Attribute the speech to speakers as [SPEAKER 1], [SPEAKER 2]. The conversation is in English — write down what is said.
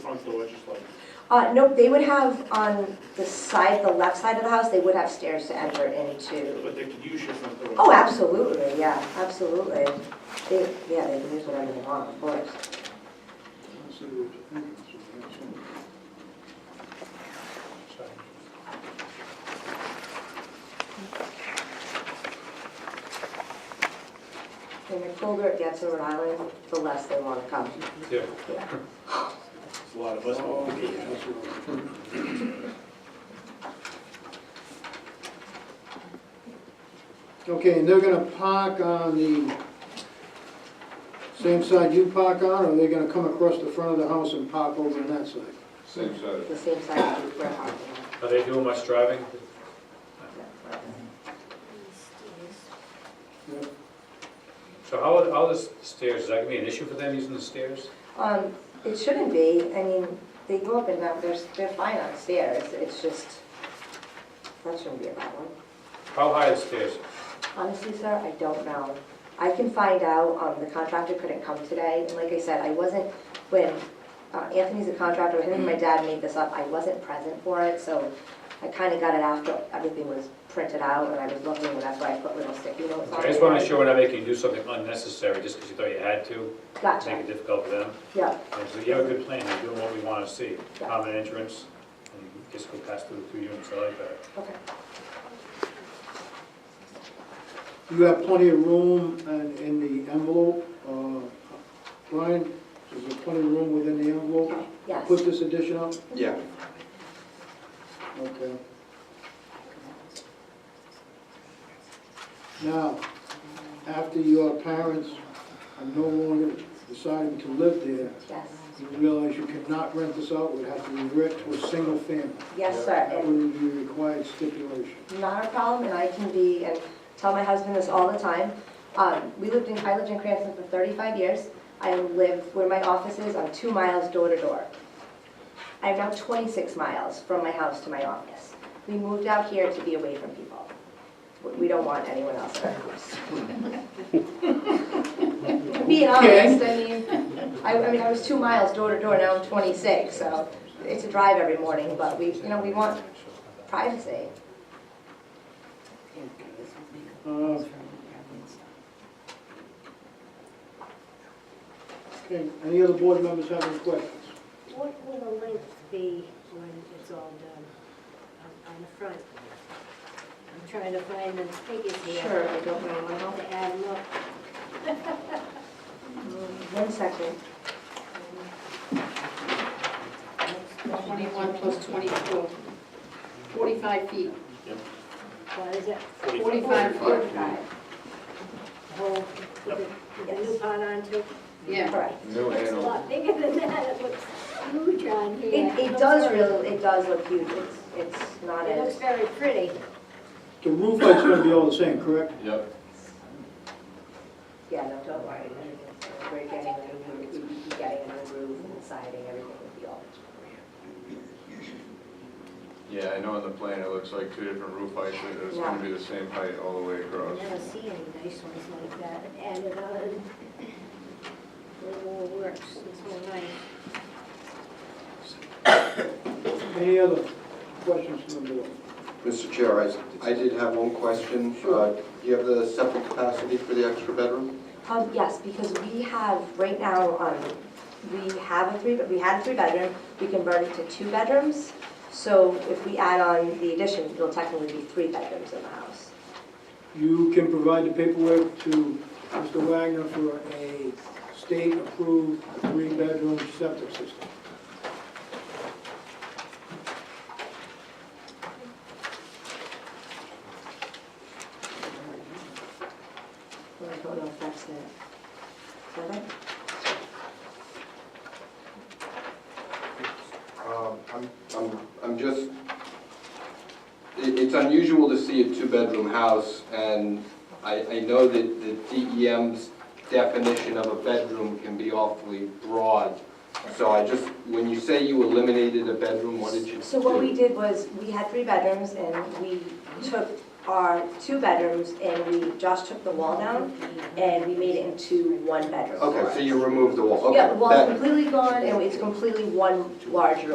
[SPEAKER 1] legislature?
[SPEAKER 2] Uh, nope, they would have on the side, the left side of the house, they would have stairs to enter into.
[SPEAKER 1] But they could use your front door.
[SPEAKER 2] Oh, absolutely, yeah, absolutely. They, yeah, they can use whatever they want, of course. And the colder it gets in Rhode Island, the less they want to come.
[SPEAKER 3] Yeah.
[SPEAKER 2] Yeah.
[SPEAKER 1] It's a lot of us.
[SPEAKER 4] Okay, and they're gonna park on the same side you park on, or they're gonna come across the front of the house and park over on that side?
[SPEAKER 5] Same side.
[SPEAKER 2] The same side as Brett Hart.
[SPEAKER 3] Are they doing much driving?
[SPEAKER 4] Yeah.
[SPEAKER 3] So how, are- how the stairs, is that gonna be an issue for them using the stairs?
[SPEAKER 2] Um, it shouldn't be, I mean, they go up and down, they're, they're fine on stairs, it's just, that shouldn't be a problem.
[SPEAKER 3] How high are the stairs?
[SPEAKER 2] Honestly, sir, I don't know. I can find out, um, the contractor couldn't come today, and like I said, I wasn't, when, uh, Anthony's a contractor, him and my dad made this up, I wasn't present for it, so I kinda got it after everything was printed out, and I was looking, and that's why I put little sticky notes on it.
[SPEAKER 3] I just wanna make sure we're not making you do something unnecessary just because you thought you had to, make
[SPEAKER 2] Gotcha,
[SPEAKER 3] it difficult for them.
[SPEAKER 2] yeah,
[SPEAKER 3] And so you have a good plan, you're doing what we wanna see, common entrance, and you just go past through the two units, I like that.
[SPEAKER 2] okay.
[SPEAKER 4] You have plenty of room in, in the envelope, uh, Brian, is there plenty of room within the envelope?
[SPEAKER 2] Yes.
[SPEAKER 4] Put this addition up?
[SPEAKER 5] Yeah.
[SPEAKER 4] Okay. Now, after your parents are no longer deciding to live there,
[SPEAKER 2] Yes,
[SPEAKER 4] you realize you cannot rent this out, would have to revert to a single family.
[SPEAKER 2] yes, sir,
[SPEAKER 4] That
[SPEAKER 2] and
[SPEAKER 4] would be a required stipulation.
[SPEAKER 2] not a problem, and I can be, and tell my husband this all the time. Um, we lived in, I lived in Cranston for thirty-five years. I live where my office is, I'm two miles door to door. I'm now twenty-six miles from my house to my office. We moved out here to be away from people. We- We don't want anyone else in our house. Being honest, I mean, I, I mean, I was two miles door to door, now I'm twenty-six, so it's a drive every morning, but we, you know, we want privacy.
[SPEAKER 4] Uh, Okay, any other board members have any questions?
[SPEAKER 6] What will the length be when it's all done on- on the front? I'm trying to find the figures here.
[SPEAKER 2] Sure, I don't know, I don't-
[SPEAKER 6] To add up.
[SPEAKER 2] One second.
[SPEAKER 7] 21 plus 22, 45 feet,
[SPEAKER 6] What is it?
[SPEAKER 7] 45
[SPEAKER 5] Forty-five.
[SPEAKER 7] feet,
[SPEAKER 6] Whole, with the, with the new pot on too?
[SPEAKER 7] yeah.
[SPEAKER 2] Correct.
[SPEAKER 5] New
[SPEAKER 6] It's a
[SPEAKER 5] animal.
[SPEAKER 6] lot bigger than that, it looks huge on here.
[SPEAKER 2] It, it does really, it does look huge, it's, it's not
[SPEAKER 6] It looks
[SPEAKER 2] as,
[SPEAKER 6] very pretty.
[SPEAKER 4] The roof light's gonna be all the same, correct?
[SPEAKER 5] Yep.
[SPEAKER 2] yeah, no, don't worry. We're getting the roof, we'd be getting the roof and siding, everything would be all.
[SPEAKER 5] Yeah, I know on the plan it looks like two different roof heights, but it's gonna be the same height all the way
[SPEAKER 6] I
[SPEAKER 5] across.
[SPEAKER 6] never see any nice ones like that added on. It all works, it's all nice.
[SPEAKER 4] Any other questions from the board?
[SPEAKER 8] Mr. Chair, I, I did have one question. Uh, Do you have the septic capacity for the extra bedroom?
[SPEAKER 2] Um, yes, because we have, right now, um, we have a three, we had a three-bedroom, we converted to two bedrooms. So if we add on the addition, it'll technically be three bedrooms in the house.
[SPEAKER 4] You can provide the paperwork to Mr. Wagner for a state-approved three-bedroom septic system.
[SPEAKER 2] Mm-hmm. I don't know if that's it. Is that it?
[SPEAKER 8] Um, I'm, I'm, I'm just, it, it's unusual to see a two-bedroom house, and I, I know that the DEM's definition of a bedroom can be awfully broad. So I just, when you say you eliminated a bedroom, what did you do?
[SPEAKER 2] So what we did was, we had three bedrooms, and we took are two bedrooms, and we, Josh took the wall down, and we made it into one bedroom.
[SPEAKER 8] Okay, so you remove the wall, okay.
[SPEAKER 2] Yeah, the wall's
[SPEAKER 8] that-
[SPEAKER 2] completely gone, and it's completely one large room.